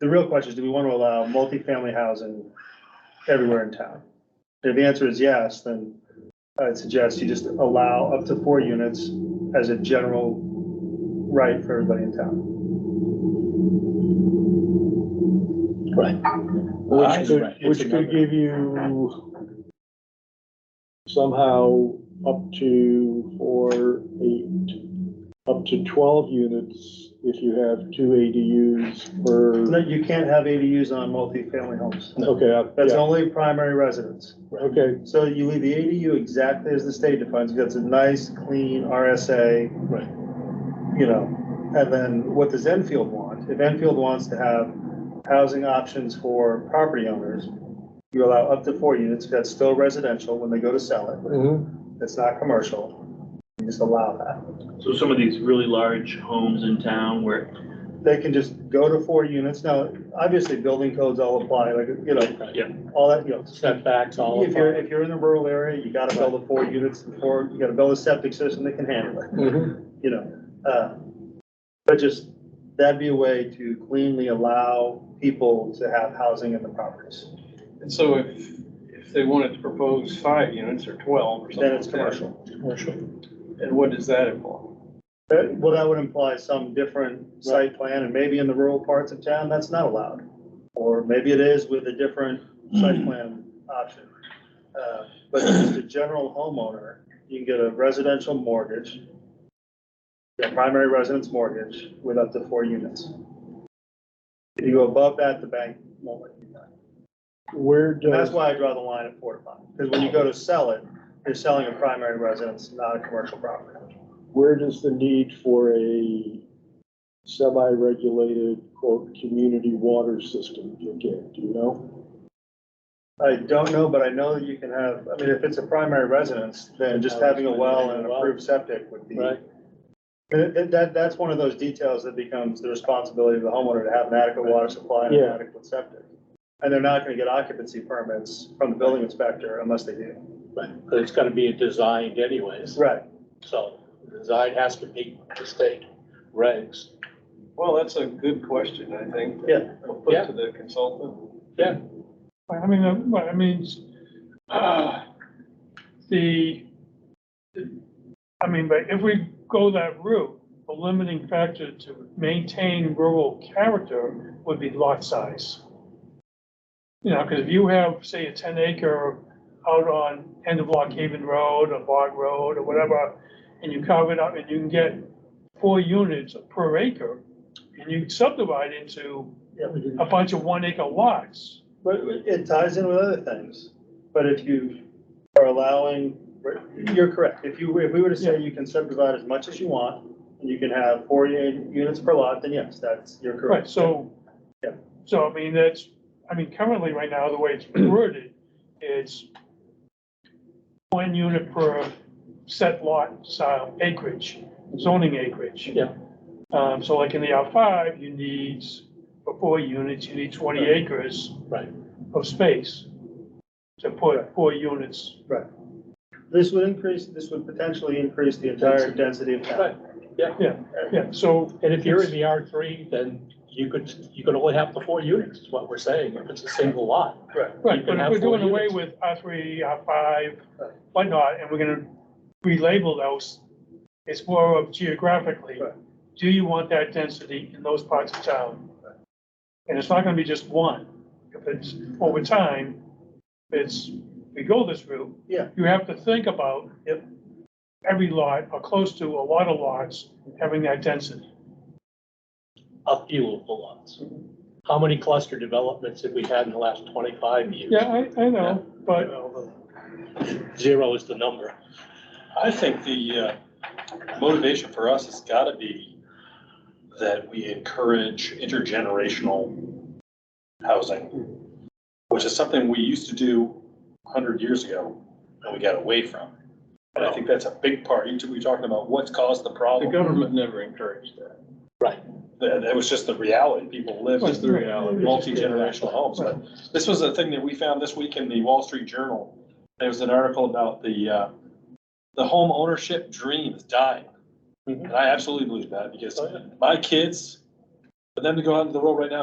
the real question is, do we want to allow multifamily housing everywhere in town? If the answer is yes, then I'd suggest you just allow up to four units as a general right for everybody in town. Which could, It's which could another- give you somehow up to four, eight, up to twelve units if you have two ADUs No, per, you can't have ADUs on multifamily homes. okay, I- That's yeah, only primary residence. okay, So you leave the ADU exactly as the state defines, it. that's a nice, clean RSA. Right. You know, and then what does Enfield want? If Enfield wants to have housing options for property owners, you allow up to four units, that's still residential when they go to sell it, mhm, it's not commercial. You just allow that. So some of these really large homes in town where, They can just go to four units. Now, obviously, building codes all apply, like, you know. Yeah. All that, you know, Setbacks, all of If you're, that. if you're in a rural area, you gotta build the four units, or you gotta build a septic system that can handle it, mhm, you know? uh, But just, that'd be a way to cleanly allow people to have housing in the properties, And so if, if they wanted to propose five units or twelve or something. then it's like that, commercial. Commercial. And what does that imply? That- Well, that would imply some different site plan, and maybe in the rural parts of town, that's not allowed. Or maybe it is with a different site plan option. Uh, But just a general homeowner, you can get a residential mortgage, a primary residence mortgage with up to four units. If you go above that, the bank won't let you. do that. where And that's does, why I draw the line at four to five, because when you go to sell it, you're selling a primary residence, not a commercial property. where does the need for a semi-regulated, quote, community water system kick in, do you know? I don't know, but I know that you can have, I mean, if it's a primary residence, then just having a well and an approved septic would be. And it- that, that's one of those details that becomes the responsibility of the homeowner to have an adequate water supply and an Yeah. adequate septic. And they're not gonna get occupancy permits from the building inspector unless they do. But but it's gotta be designed anyways, Right. so the design has to meet the state regs. Well, that's a good question, I think. Yeah. We'll put Yeah. to the consultant. Well, I mean, uh, well, I mean, s- uh, the, I mean, but if we go that route, the limiting factor to maintain rural character would be lot size. You know, because if you have, say, a ten acre out on end of Lock Haven Road or Bog Road or whatever, and you carve it up and you can get four units per acre, and you subdivide into a bunch of one acre lots. But it ties in with other things. But if you are allowing, you're correct. If you, if we were to say you can subdivide as much as you want, and you can have four units per lot, then yes, that's, you're correct. Right, so, Yeah. so I mean, that's, I mean, currently, right now, the way it's worded, it's one unit per set lot style acreage, zoning acreage. Yeah. Um, so like in the R five, you need, for four units, you need twenty Right. acres. Right. Of space to put four units. This would increase, this would potentially increase the entire density of town. Right. Yeah, so, And if you're in the R three, then you could, you could only have the four units, is what we're saying, if it's a single lot. right, can but if have we're four doing away units. with R three, R five, whatnot, and we're gonna relabel those, it's more of geographically, Right. do you want that density in those parts of town? And it's not gonna be just one, if it's, over time, it's, we go this route. Yeah. You have to think about. Yep. Every lot, or close to a lot of lots, having that density. a few of the lots. How many cluster developments have we had in the last twenty-five years? Yeah, I, I know, but, Zero is the number. I think the uh, motivation for us has got to be that we encourage intergenerational housing, which is something we used to do 100 years ago and we got away from. And I think that's a big part. You two were talking about what's caused the The problem. government never encouraged that. That that was just the reality. People lived That's in the reality. multi-generational homes. But this was a thing that we found this week in the Wall Street Journal. There was an article about the, uh, the home ownership dream is dying. Mhm. And I absolutely believe that because Oh, yeah. my kids, for them to go out into the world right now,